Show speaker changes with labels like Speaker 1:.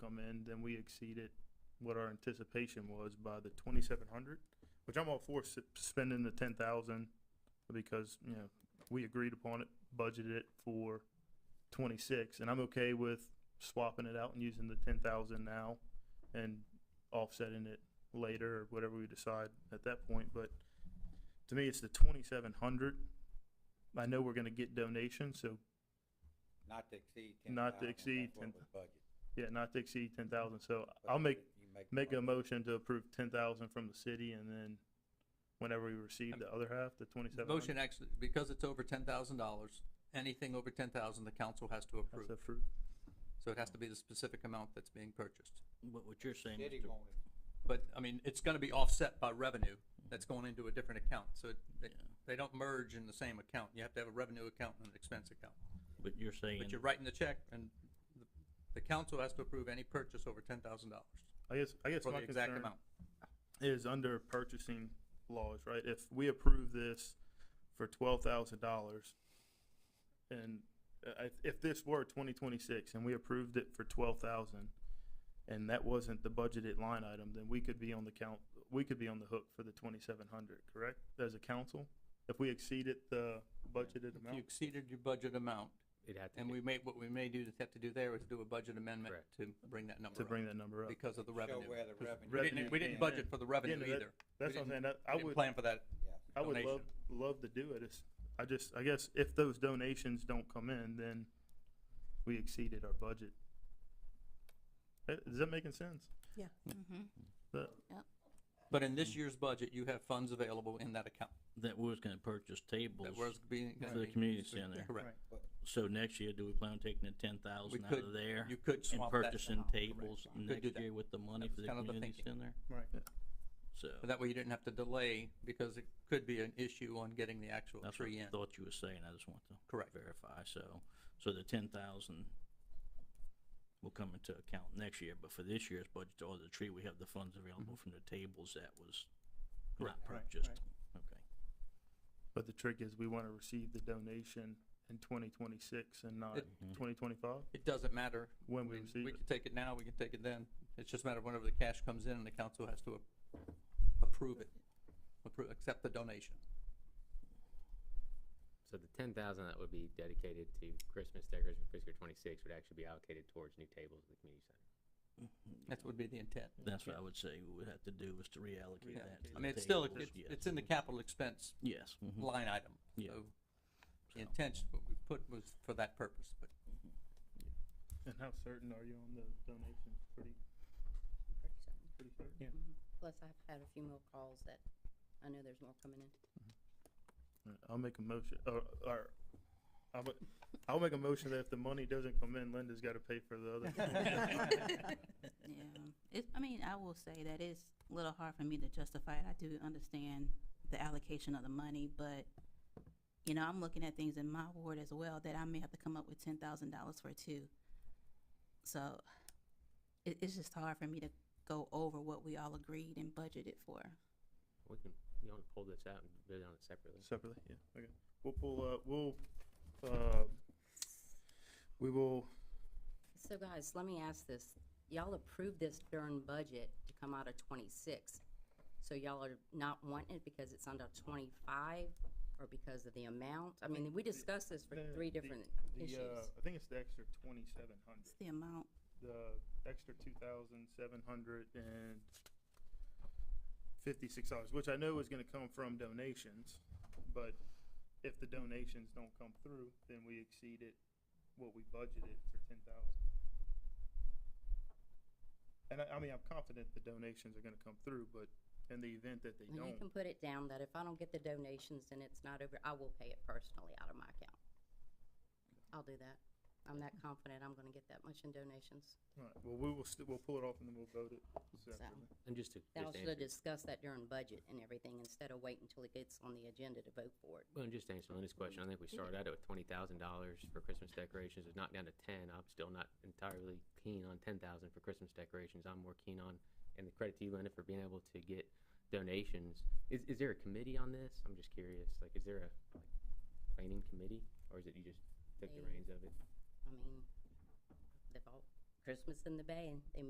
Speaker 1: come in, then we exceeded what our anticipation was by the twenty-seven hundred, which I'm all for s- spending the ten thousand because, you know, we agreed upon it, budgeted it for twenty-six, and I'm okay with swapping it out and using the ten thousand now and offsetting it later or whatever we decide at that point, but to me, it's the twenty-seven hundred. I know we're gonna get donations, so
Speaker 2: Not to exceed ten thousand.
Speaker 1: Not to exceed 10 yeah, not to exceed ten thousand, so I'll make, make a motion to approve ten thousand from the city and then whenever we receive the other half, the twenty-seven hundred.
Speaker 3: Motion actually, because it's over ten thousand dollars, anything over ten thousand, the council has to approve. So it has to be the specific amount that's being purchased.
Speaker 4: But what you're saying,
Speaker 2: Diddy
Speaker 4: Mr.
Speaker 2: wanted,
Speaker 3: But, I mean, it's gonna be offset by revenue that's going into a different account, so it- they, they don't merge in the same account. You have to have a revenue account and an expense account.
Speaker 4: but you're saying,
Speaker 3: But you're writing the check and the, the council has to approve any purchase over ten thousand dollars
Speaker 1: I guess, I guess
Speaker 3: for the
Speaker 1: my
Speaker 3: exact
Speaker 1: concern
Speaker 3: amount.
Speaker 1: is under purchasing laws, right? If we approve this for twelve thousand dollars and uh, I- if this were twenty twenty-six and we approved it for twelve thousand and that wasn't the budgeted line item, then we could be on the count, we could be on the hook for the twenty-seven hundred, correct? As a council, if we exceeded the budgeted
Speaker 3: If you
Speaker 1: amount?
Speaker 3: exceeded your budget amount,
Speaker 5: It had to
Speaker 3: and
Speaker 5: be,
Speaker 3: we may, what we may do to have to do there is do a budget amendment
Speaker 5: Correct.
Speaker 3: to bring that number
Speaker 1: to
Speaker 3: up.
Speaker 1: bring that number up.
Speaker 3: because of the
Speaker 2: show
Speaker 3: revenue.
Speaker 2: where the
Speaker 1: 'Cause
Speaker 2: revenue.
Speaker 3: We didn't, we didn't
Speaker 1: Yeah.
Speaker 2: came in.
Speaker 3: budget for the revenue
Speaker 1: Yeah, no, that-
Speaker 3: either.
Speaker 1: That's what I'm saying, that- I
Speaker 3: We didn't
Speaker 1: would,
Speaker 3: plan for that.
Speaker 2: Yeah.
Speaker 1: I would love,
Speaker 3: donation.
Speaker 1: love to do it, it's, I just, I guess if those donations don't come in, then we exceeded our budget. Eh, Is that making sense?
Speaker 6: Yeah.
Speaker 1: That-
Speaker 3: But in this year's budget, you have funds available in that account.
Speaker 4: that we was gonna purchase tables,
Speaker 3: That was being.
Speaker 4: For the community center.
Speaker 3: Correct.
Speaker 4: so next year, do we plan on taking the ten
Speaker 3: We
Speaker 4: thousand out
Speaker 3: could-
Speaker 4: of there?
Speaker 3: You could
Speaker 4: And
Speaker 3: swap that.
Speaker 4: purchasing
Speaker 3: amount, correct.
Speaker 4: tables
Speaker 3: You could do
Speaker 4: next
Speaker 3: that.
Speaker 4: year with the money
Speaker 3: That
Speaker 4: for
Speaker 3: was
Speaker 4: the
Speaker 3: kind of the
Speaker 4: community center?
Speaker 3: Right.
Speaker 4: So,
Speaker 3: But that way you didn't have to delay because it could be an issue on getting the actual
Speaker 4: that's what
Speaker 3: tree
Speaker 4: I
Speaker 3: in.
Speaker 4: thought you were saying, I just want to
Speaker 3: Correct.
Speaker 4: verify, so, so the ten thousand will come into account next year, but for this year's budget, all the tree, we have the funds available from the tables that was not
Speaker 3: Mm-hmm. Correct. Right,
Speaker 4: purchased, okay.
Speaker 1: But the trick is, we wanna receive the donation in twenty twenty-six and not
Speaker 3: It-
Speaker 1: twenty twenty-five,
Speaker 3: It doesn't matter. I
Speaker 1: when we
Speaker 3: mean,
Speaker 1: receive
Speaker 3: We
Speaker 1: it.
Speaker 3: can take it now, we can take it then. It's just a matter of whenever the cash comes in and the council has to a- approve it, approve, accept the donation.
Speaker 5: so the ten thousand that would be dedicated to Christmas decorations for fiscal twenty-six would actually be allocated towards new tables at the community center.
Speaker 3: That would be the intent.
Speaker 4: That's what I would say we would have to do is to reallocate
Speaker 3: Yeah.
Speaker 4: that. to
Speaker 3: I
Speaker 4: the
Speaker 3: mean, it's still,
Speaker 4: tables,
Speaker 3: it's,
Speaker 4: yes.
Speaker 3: it's in the capital expense
Speaker 4: Yes. mhm.
Speaker 3: line item.
Speaker 4: Yeah.
Speaker 3: So
Speaker 4: So-
Speaker 3: the intention, what we put was for that purpose, but
Speaker 1: And how certain are you on the donation? Pretty,
Speaker 7: pretty soon.
Speaker 1: pretty certain?
Speaker 7: Plus, I've had a few more calls that I know there's more coming in.
Speaker 1: Alright, I'll make a motion, or, or, I'll, ma- I'll make a motion that if the money doesn't come in, Linda's gotta pay for the other.
Speaker 6: Yeah, it's, I mean, I will say that it's a little hard for me to justify it. I do understand the allocation of the money, but, you know, I'm looking at things in my ward as well that I may have to come up with ten thousand dollars for too. So it, it's just hard for me to go over what we all agreed and budgeted for.
Speaker 5: We can, you want to pull this out and bid on it separately?
Speaker 1: Separately, yeah, okay. We'll pull, uh, we'll, uh, we will,
Speaker 7: So guys, let me ask this. Y'all approved this during budget to come out of twenty-six. So y'all are not wanting it because it's under twenty-five or because of the amount? I mean, we discussed this for
Speaker 1: the-
Speaker 7: three
Speaker 1: the-
Speaker 7: different
Speaker 1: the,
Speaker 7: issues.
Speaker 1: uh, I think it's the extra twenty-seven
Speaker 6: It's
Speaker 1: hundred,
Speaker 6: the amount.
Speaker 1: the extra two thousand seven hundred and fifty-six dollars, which I know is gonna come from donations, but if the donations don't come through, then we exceeded what we budgeted for ten thousand. And I, I mean, I'm confident the donations are gonna come through, but in the event that they
Speaker 7: And you
Speaker 1: don't,
Speaker 7: can put it down that if I don't get the donations and it's not over, I will pay it personally out of my account. I'll do that. I'm that confident I'm gonna get that much in donations.
Speaker 1: alright, well, we will, st- we'll pull it off and then we'll vote it separately.
Speaker 5: And just to,
Speaker 7: Y'all
Speaker 5: just
Speaker 7: should have
Speaker 5: answer,
Speaker 7: discussed that during budget and everything instead of waiting until it gets on the agenda to vote for it.
Speaker 5: well, and just to answer Linda's question, I think we started out at twenty thousand dollars for Christmas decorations, it's not down to ten, I'm still not entirely keen on ten thousand for Christmas decorations, I'm more keen on, and the credit to you, Linda, for being able to get donations. Is, is there a committee on this? I'm just curious, like, is there a like, planning committee, or is it you just took the
Speaker 7: They-
Speaker 5: reins of it?
Speaker 7: I mean, they've all Christmas in the Bay, and they